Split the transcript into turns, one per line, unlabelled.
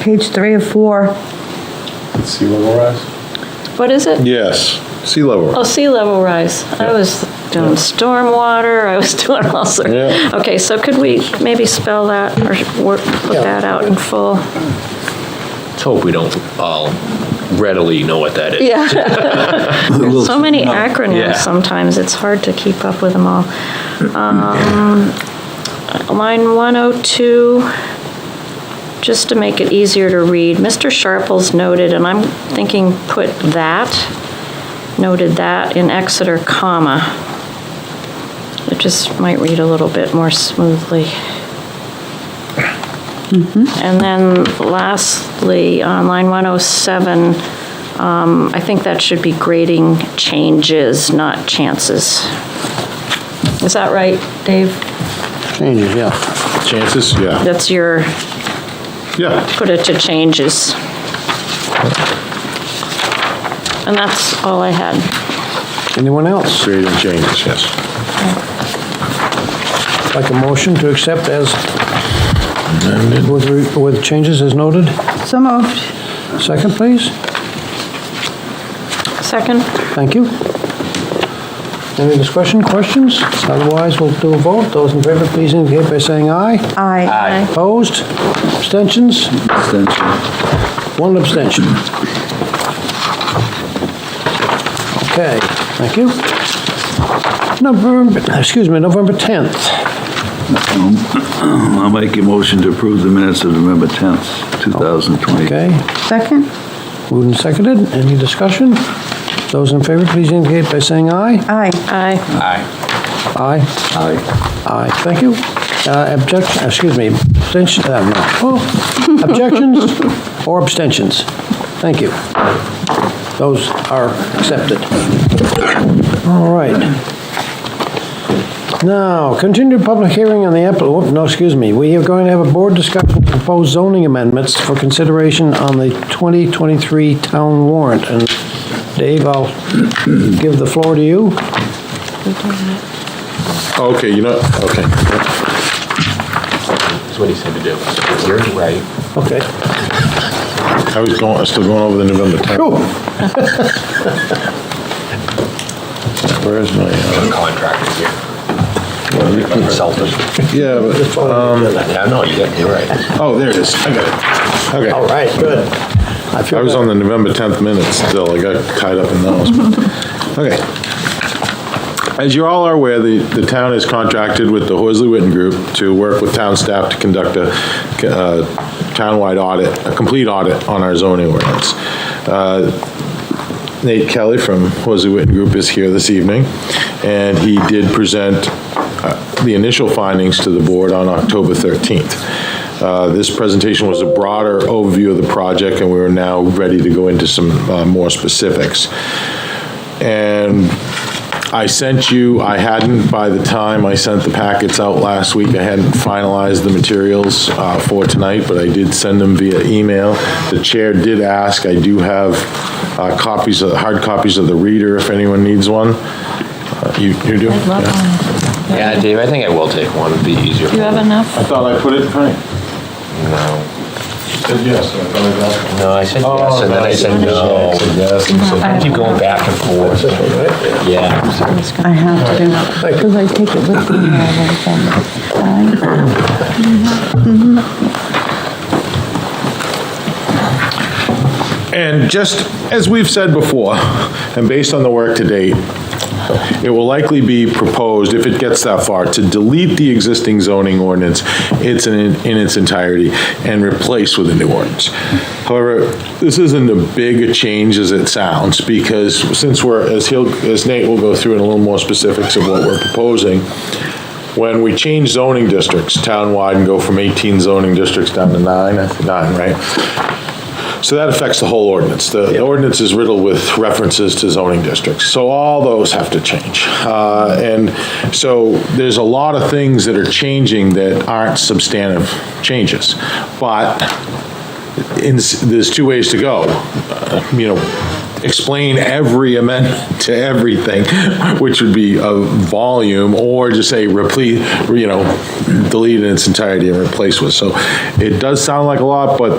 Page three of four.
Sea level rise?
What is it?
Yes, sea level.
Oh, sea level rise. I was doing stormwater, I was doing all sorts.
Yeah.
Okay, so could we maybe spell that or work- put that out in full?
Let's hope we don't all readily know what that is.
Yeah. So many
Yeah.
acronyms sometimes, it's hard to keep up with them all. Um, Line 102, just to make it easier to read, Mr. Sharples noted, and I'm thinking put that, noted that in Exeter, comma. It just might read a little bit more smoothly. And then lastly, on line 107, um, I think that should be grading changes, not chances. Is that right, Dave?
Changes, yeah. Chances, yeah,
That's your,
yeah.
put it to changes. And that's all I had.
Anyone else? Creating changes, yes.
Like a motion to accept as, with, re- with changes as noted?
So moved.
Second, please.
Second?
Thank you. Any discussion, questions? Otherwise, we'll do a vote. Those in favor, please indicate by saying aye.
Aye.
Aye.
Opposed? Abstentions? One abstention. Okay, thank you. November, excuse me, November 10th.
I'll make a motion to approve the minutes of November 10th, 2020.
Okay,
Second?
moved and seconded. Any discussion? Those in favor, please indicate by saying aye.
Aye.
Aye.
Aye. Aye. Aye, thank you. Uh, Objection, excuse me, abstention, uh, no, oh, objections or abstentions? Thank you. Those are accepted. All right. Now, continued public hearing on the, app- whoop, no, excuse me, we are going to have a board discussion of proposed zoning amendments for consideration on the 2023 town warrant. And Dave, I'll give the floor to you.
Okay, you know, okay.
That's what he said to do. You're right.
Okay.
I was going, I'm still going over the November 10th.
Cool.
Where is my, uh,
Contractor here. Consultant.
yeah, but,
Yeah, no, you're you're right.
oh, there it is. I got it.
All
Okay.
right, good. I
I
feel
was
better.
on the November 10th minutes still. I got tied up in those. Okay. As you all are aware, the, the town is contracted with the Horsley Witten Group to work with town staff to conduct a uh, townwide audit, a complete audit on our zoning ordinance. Uh, Nate Kelly from Horsey Witten Group is here this evening, and he did present uh, the initial findings to the board on October 13th. Uh, This presentation was a broader overview of the project, and we're now ready to go into some uh, more specifics. And I sent you, I hadn't, by the time I sent the packets out last week, I hadn't finalized the materials uh, for tonight, but I did send them via email. The chair did ask, I do have uh, copies, of hard copies of the reader if anyone needs one. Uh, You you do?
I'd love
Yeah.
one.
Yeah, Dave, I think I will take one. It'd be easier.
Do you have enough?
I thought I put it in print.
No.
Said yes, I thought I got
No, I said
Oh,
yes, and then I said no. I Keep going back and forth. Yeah.
I have to, because I take it with me all the time.
And just as we've said before, and based on the work to date, it will likely be proposed, if it gets that far, to delete the existing zoning ordinance it's in in its entirety and replace with a new ordinance. However, this isn't a big a change as it sounds, because since we're, as he'll, as Nate will go through in a little more specifics of what we're proposing, when we change zoning districts townwide and go from 18 zoning districts down to nine, I think nine, right? So that affects the whole ordinance. The the ordinance is riddled with references to zoning districts, so all those have to change. Uh, And so there's a lot of things that are changing that aren't substantive changes. But in, there's two ways to go. Uh, You know, explain every amendment to everything, which would be a volume, or just say replace, you know, delete in its entirety and replace with. So it does sound like a lot, but